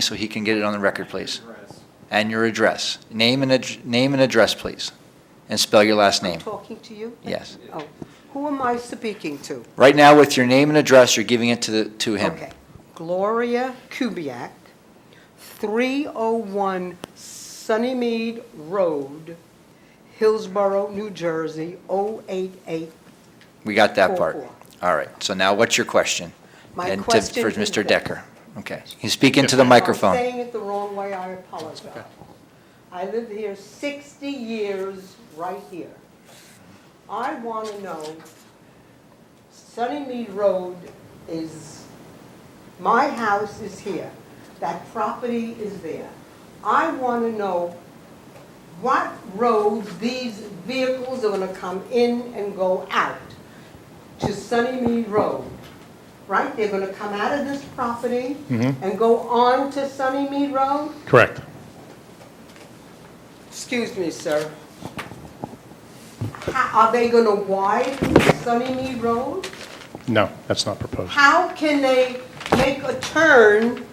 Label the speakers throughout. Speaker 1: so he can get it on the record, please? And your address. Name and, ad- name and address, please. And spell your last name.
Speaker 2: Talking to you?
Speaker 1: Yes.
Speaker 2: Oh, who am I speaking to?
Speaker 1: Right now, with your name and address, you're giving it to, the to him.
Speaker 2: Okay. Gloria Kubiak, 301 Sunnymead Road, Hillsborough, New Jersey, 088.
Speaker 1: We got that part.
Speaker 2: Four,
Speaker 1: All right, so now what's your question?
Speaker 2: My
Speaker 1: And to-
Speaker 2: question
Speaker 1: For
Speaker 2: is
Speaker 1: Mr.
Speaker 2: this.
Speaker 1: Decker. Okay, he's speaking to the
Speaker 2: I'm
Speaker 1: microphone.
Speaker 2: saying it the wrong way, I apologize. I lived here 60 years, right here. I want to know, Sunnymead Road is, my house is here, that property is there. I want to know what roads these vehicles are going to come in and go out to Sunnymead Road, right? They're going to come out of this property and go on to Sunnymead Road?
Speaker 3: Correct.
Speaker 2: Excuse me, sir. How- Are they going to widen Sunnymead Road?
Speaker 3: No, that's not proposed.
Speaker 2: How can they make a turn,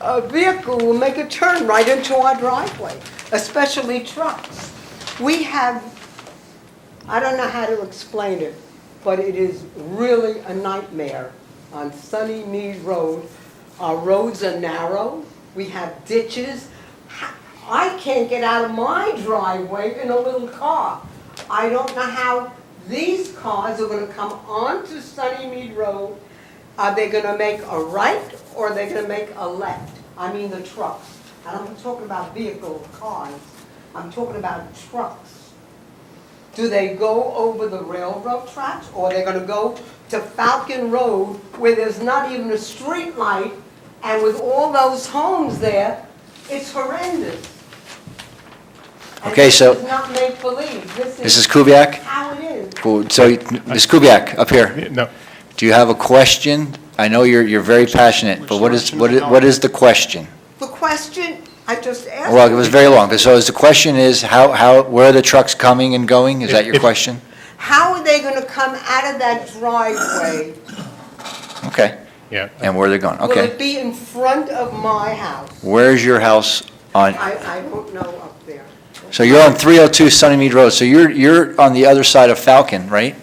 Speaker 2: a vehicle will make a turn right into our driveway, especially trucks? We have, I don't know how to explain it, but it is really a nightmare on Sunny Mead Road. Our roads are narrow, we have ditches. Ha- I can't get out of my driveway in a little car. I don't know how these cars are gonna come onto Sunny Mead Road. Are they gonna make a right or are they gonna make a left? I mean the trucks. And I'm not talking about vehicle cars, I'm talking about trucks. Do they go over the railroad tracks, or they're gonna go to Falcon Road where there's not even a street light, and with all those homes there, it's horrendous. And
Speaker 1: Okay, so-
Speaker 2: This is not make-believe, this is.
Speaker 1: Mrs. Kubiak?
Speaker 2: How it is.
Speaker 1: Well, So, Ms. Kubiak, up here.
Speaker 3: No,
Speaker 1: Do you have a question? I know you're, you're very passionate, but what is, what is- what is the question?
Speaker 2: The question I just asked.
Speaker 1: Well, it was very long. So is the question is, how, how, where are the trucks coming and going? Is that your
Speaker 3: If-
Speaker 1: question?
Speaker 2: How are they gonna come out of that driveway?
Speaker 1: Okay.
Speaker 3: yeah.
Speaker 1: And where they're going,
Speaker 2: Will it
Speaker 1: okay.
Speaker 2: be in front of my house?
Speaker 1: Where's your house on,
Speaker 2: I, I don't know up there.
Speaker 1: so you're on 302 Sunnymead Road, so you're, you're on the other side of Falcon, right?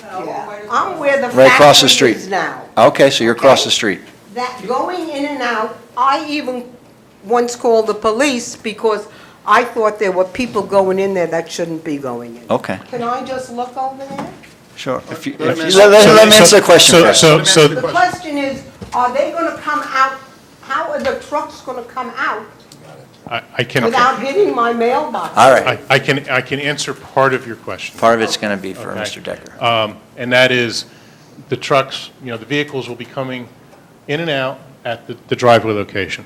Speaker 2: Yeah. I'm where the
Speaker 1: Right across the
Speaker 2: factory
Speaker 1: street.
Speaker 2: is now.
Speaker 1: Okay, so you're across
Speaker 2: Okay.
Speaker 1: the street.
Speaker 2: That going in and out, I even once called the police because I thought there were people going in there that shouldn't be going in.
Speaker 1: Okay,
Speaker 2: Can I just look over there?
Speaker 1: sure. If you-
Speaker 4: Let him
Speaker 1: if you-
Speaker 4: answer-
Speaker 1: Let
Speaker 3: So-
Speaker 1: let him
Speaker 3: so-
Speaker 1: answer the question
Speaker 3: so-
Speaker 1: first.
Speaker 3: So, so,
Speaker 2: The
Speaker 3: the-
Speaker 2: question is, are they gonna come out, how are the trucks gonna come out
Speaker 3: I I can,
Speaker 2: without
Speaker 3: I
Speaker 2: hitting my mailbox?
Speaker 1: All right,
Speaker 3: I can, I can answer part of your question.
Speaker 1: part of it's going to be for
Speaker 3: Okay.
Speaker 1: Mr. Decker.
Speaker 3: Um, And that is, the trucks, you know, the vehicles will be coming in and out at the the driveway location.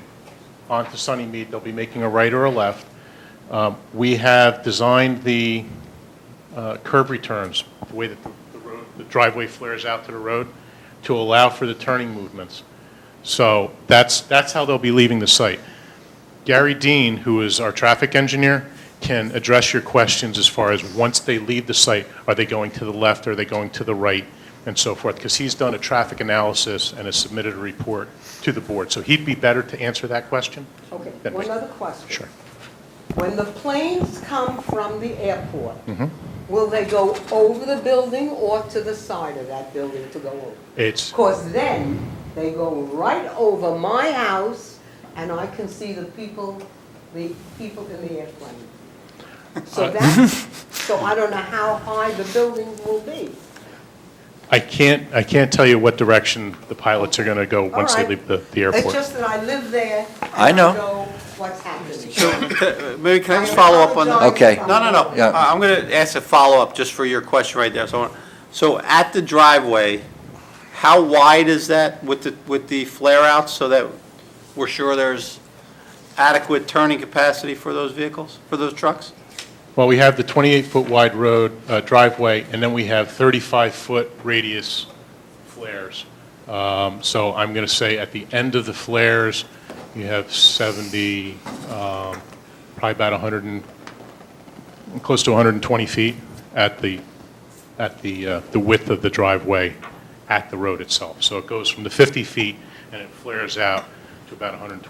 Speaker 3: Onto Sunnymead, they'll be making a right or a left. Um, We have designed the uh, curb returns, the way that the the road, the driveway flares out to the road, to allow for the turning movements. So that's, that's how they'll be leaving the site. Gary Dean, who is our traffic engineer, can address your questions as far as once they leave the site, are they going to the left, are they going to the right, and so forth, because he's done a traffic analysis and has submitted a report to the board. So he'd be better to answer that question.
Speaker 2: Okay,
Speaker 3: than me.
Speaker 2: one other question.
Speaker 3: Sure.
Speaker 2: When the planes come from the airport, will they go over the building or to the side of that building to go over?
Speaker 3: It's,
Speaker 2: Because then they go right over my house and I can see the people, the people in the airplane. So that, so I don't know how high the building will be.
Speaker 3: I can't, I can't tell you what direction the pilots are going to go
Speaker 2: All
Speaker 3: once they
Speaker 2: right.
Speaker 3: leave the the
Speaker 2: It's
Speaker 3: airport.
Speaker 2: just that I live there. and
Speaker 1: I know.
Speaker 2: what's happening.
Speaker 4: Maybe can I just follow up on that?
Speaker 1: apologize. Okay.
Speaker 4: No, no, no.
Speaker 1: Yeah.
Speaker 4: I- I'm going to ask a follow-up just for your question right there. So, I wanna- so at the driveway, how wide is that with the, with the flare-outs so that we're sure there's adequate turning capacity for those vehicles, for those trucks?
Speaker 3: Well, we have the 28-foot wide road, uh, driveway, and then we have 35-foot radius flares. Um, So I'm going to say at the end of the flares, you have 70, um, probably about 100 and, close to 120 feet at the, at the, uh, the width of the driveway at the road itself. So it goes from the 50 feet and it flares out to about 120.